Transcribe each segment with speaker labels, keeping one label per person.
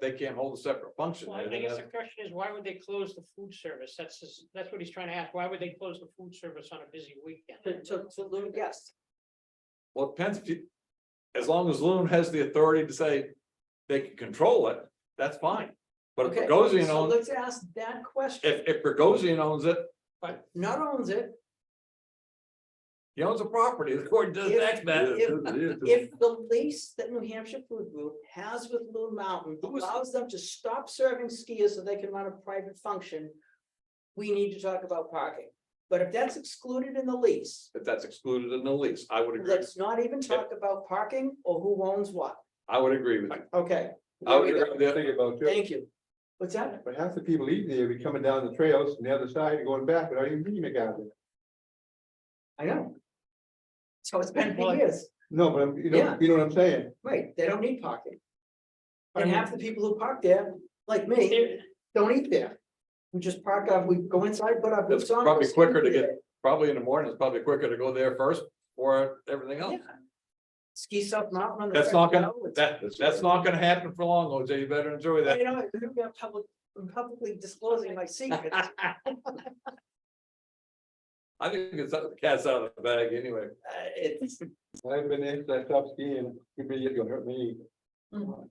Speaker 1: they can't hold a separate function.
Speaker 2: Well, I guess the question is, why would they close the food service? That's, just- that's what he's trying to ask. Why would they close the food service on a busy weekend?
Speaker 3: to, to, to Lou, yes.
Speaker 1: Well, it depends if you, as long as Loon has the authority to say they can control it, that's fine. But if
Speaker 3: Okay,
Speaker 1: Bogosian
Speaker 3: So
Speaker 1: owns,
Speaker 3: let's ask that question.
Speaker 1: if, if Bogosian owns it,
Speaker 3: Not owns it,
Speaker 1: he owns the property, according to the
Speaker 3: If-
Speaker 1: tax map.
Speaker 3: if- if the lease that New Hampshire Food Group has with Blue Mountain
Speaker 1: Who is-
Speaker 3: allows them to stop serving skiers so they can run a private function. We need to talk about parking, but if that's excluded in the lease,
Speaker 1: If that's excluded in the lease, I would agree,
Speaker 3: let's not even talk about parking or who owns what,
Speaker 1: I would agree with you.
Speaker 3: okay?
Speaker 1: I
Speaker 3: there
Speaker 1: would
Speaker 3: we
Speaker 1: agree
Speaker 3: go.
Speaker 1: with you.
Speaker 4: Think about too,
Speaker 3: Thank you. What's that?
Speaker 4: but half the people eating there be coming down the trails and the other side and going back without even meeting a guy there.
Speaker 3: I know. So it's been
Speaker 2: Well,
Speaker 3: for years,
Speaker 4: No, but I'm- you know,
Speaker 3: Yeah.
Speaker 4: you know what I'm saying?
Speaker 3: right, they don't need parking.
Speaker 2: I
Speaker 3: And
Speaker 2: mean-
Speaker 3: half the people who park there, like me,
Speaker 2: There-
Speaker 3: don't eat there. We just park up, we go inside, put our boots
Speaker 1: It's
Speaker 3: on.
Speaker 1: probably
Speaker 3: go skate
Speaker 1: quicker to
Speaker 3: there.
Speaker 1: Probably in the morning, it's probably quicker to go there first or everything else.
Speaker 3: Ski stuff not on the.
Speaker 1: That's
Speaker 3: first
Speaker 1: not gonna,
Speaker 3: go, it's-
Speaker 1: that, that's not gonna happen for long, OJ, you better enjoy that.
Speaker 3: You know, I could be public, I'm publicly disclosing my secrets.
Speaker 1: I think it's, the cat's out of the bag anyway.
Speaker 3: Uh, It's,
Speaker 4: I've been there, since I stopped skiing, could be, it's gonna hurt me.
Speaker 3: Mhm.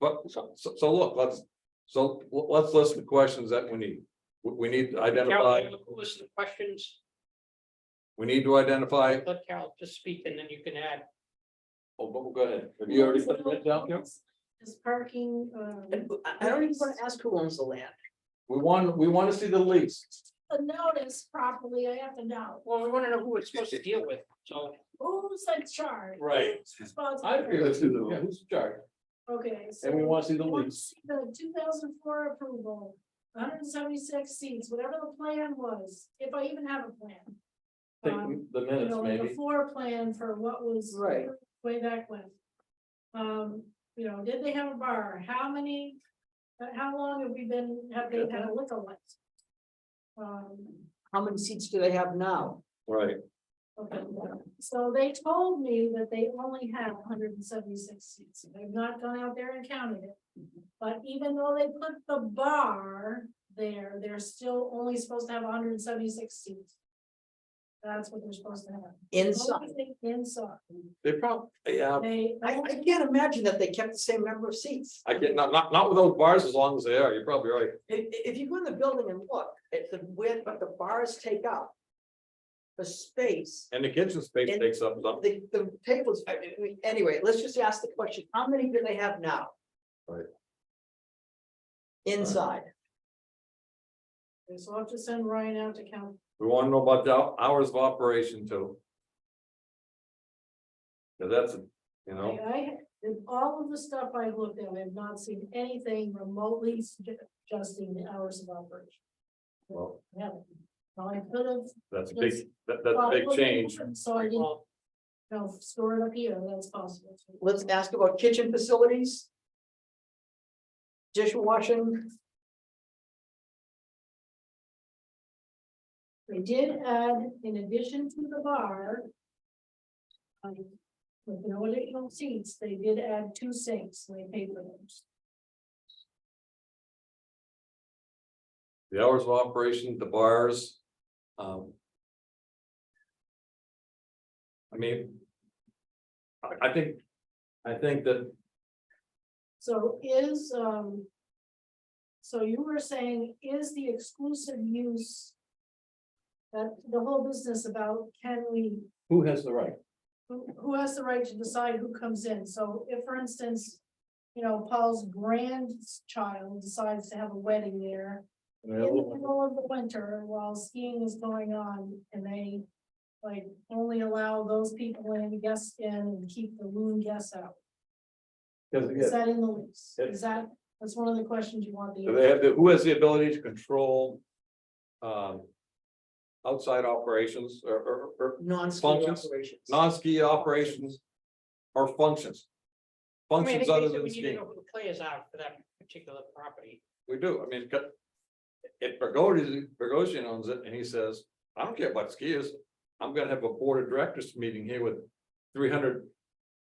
Speaker 1: But so, so so look, let's, so l- let's list the questions that we need. We, we need to identify,
Speaker 2: Carol, listen to questions,
Speaker 1: we need to identify,
Speaker 2: let Carol just speak and then you can add.
Speaker 1: oh, but go ahead. Have you already put that down?
Speaker 5: Is parking, um,
Speaker 3: I I don't even want to ask who owns the land.
Speaker 1: We want, we want to see the lease.
Speaker 5: the notice properly, I have to know,
Speaker 2: Well, we want to know who it's supposed to deal with, so.
Speaker 5: who's in charge?
Speaker 1: Right.
Speaker 5: Who's responsible?
Speaker 1: I agree with you, yeah, who's in charge?
Speaker 5: Okay, so.
Speaker 1: And we want to see the
Speaker 5: once
Speaker 1: lease.
Speaker 5: The two thousand four approval, hundred and seventy-six seats, whatever the plan was, if I even have a plan.
Speaker 1: Take
Speaker 5: Um,
Speaker 1: the
Speaker 5: You
Speaker 1: minutes
Speaker 5: know, like a
Speaker 1: maybe.
Speaker 5: floor plan for what was.
Speaker 3: Right.
Speaker 5: Way back when. Um, you know, did they have a bar? How many, uh, how long have we been, have they had a liquor license? Um,
Speaker 3: How many seats do they have now?
Speaker 1: Right.
Speaker 5: Okay, so they told me that they only have hundred and seventy-six seats, they've not gone out there and counted it. But even though they put the bar there, they're still only supposed to have hundred and seventy-six seats. That's what they're supposed to have.
Speaker 3: Inside.
Speaker 5: Only Inside,
Speaker 1: They probably, yeah,
Speaker 5: they,
Speaker 3: I, I can't imagine that they kept the same number of seats.
Speaker 1: I get, not, not, not with those bars as long as they are, you're probably right.
Speaker 3: If, if you go in the building and look at the width that the bars take up. The space,
Speaker 1: And the kitchen space
Speaker 3: And-
Speaker 1: takes up some.
Speaker 3: the, the tables, I mean, we- anyway, let's just ask the question, how many do they have now?
Speaker 1: Right.
Speaker 3: Inside,
Speaker 5: so I'll have to send Ryan out to count.
Speaker 1: We want to know about the hou- hours of operation too. 'Cause that's, you
Speaker 5: I,
Speaker 1: know,
Speaker 5: I- in all of the stuff I looked at, I have not seen anything remotely suggesting the hours of operation.
Speaker 1: well,
Speaker 5: Yeah, well, I could have.
Speaker 1: that's a big, that, that's a big change.
Speaker 5: So I didn't,
Speaker 2: Well,
Speaker 5: you know, store it up here, that's possible. too.
Speaker 3: let's ask about kitchen facilities. Dishwashing,
Speaker 5: They did add, in addition to the bar. um, With no additional seats, they did add two sinks, and they paid for those.
Speaker 1: The hours of operation, the bars, um. I mean. I, I think, I think that,
Speaker 5: So is, um. So you were saying, is the exclusive use? That the whole business about can we
Speaker 1: who has the right?
Speaker 5: who, who has the right to decide who comes in? So if, for instance, you know, Paul's grandchild decides to have a wedding there in the middle of the winter while skiing is going on and they like only allow those people in, guests in, and keep the loon guests out.
Speaker 1: Because
Speaker 5: Is that in the lease?
Speaker 1: Yeah.
Speaker 5: Is that, that's one of the questions you want the.
Speaker 1: So They have, the who has the ability to control? Um. Outside operations or, or, or
Speaker 3: non-ski
Speaker 1: Functions,
Speaker 3: operations.
Speaker 1: non-ski operations or functions.
Speaker 2: I mean, I
Speaker 1: Functions
Speaker 2: think
Speaker 1: other
Speaker 2: basically
Speaker 1: than
Speaker 2: we need to
Speaker 1: skiing,
Speaker 2: know who the players are for that particular property.
Speaker 1: we do, I mean, 'cause if Bergoglio, Bergoglio owns it and he says, I don't care about skiers, I'm gonna have a board of directors meeting here with 300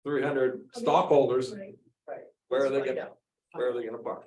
Speaker 1: 300 stockholders,
Speaker 5: Right.
Speaker 1: where are they
Speaker 3: Let's find
Speaker 1: gonna,
Speaker 3: out.
Speaker 1: where are they gonna park?